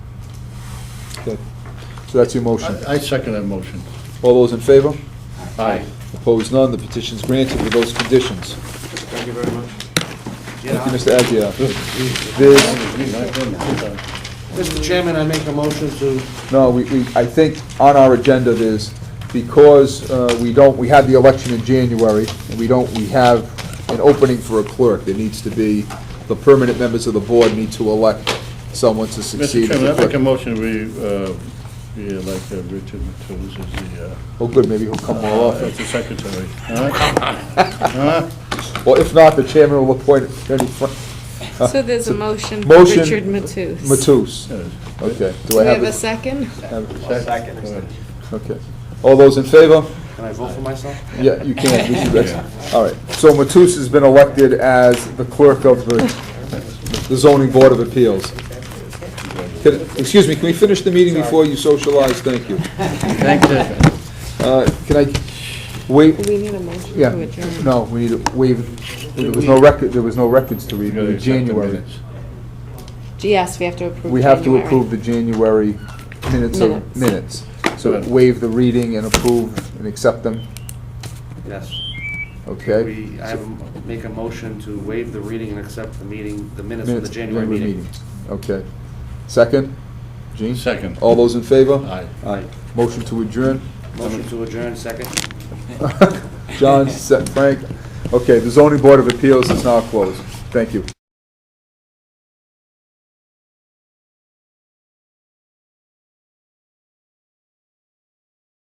that, so that's your motion. I I second that motion. All those in favor? Aye. Opposed, none, the petition's granted with those conditions. Thank you very much. Thank you, Mr. Aguirre. There's, Mr. Chairman, I make a motion to, no, we, we, I think on our agenda there's, because uh, we don't, we had the election in January, and we don't, we have an opening for a clerk, there needs to be, the permanent members of the board need to elect someone to Mr. succeed. as Chairman, the I make a clerk. motion we, uh, we elect uh, Richard Matus as the, Oh, good, maybe he'll come more uh, often. as the secretary. Huh? Huh? Well, if not, the chairman will appoint Attorney Frank So there's a motion for Uh, Motion. Richard Matus. Matus. Yes. Okay, Do do I we have have a it? second? second, All right. Okay. All those in favor? can I vote for myself? Yeah, you can. This is excellent. All right. So Matus has been elected as the clerk of the the zoning board of appeals. Can- Excuse me, can we finish the meeting before you socialize? Thank you. Uh, Can I wait? We need a motion Yeah, to adjourn. no, we need to waive, there was no record, there was no records to You read gotta in accept the January. minutes. Yes, we have to approve. We have to January. approve the January minutes of minutes. So waive the reading and approve and accept them, Yes. okay? We, I have, a- make a motion to waive the reading and accept the meeting, the minutes of the Minutes, January meeting. Okay. Second? Gene? Second. All those in favor? Aye. Aye. Motion to adjourn? Motion to adjourn, second. John, se- Frank? Okay, the zoning board of appeals is now closed. Thank you.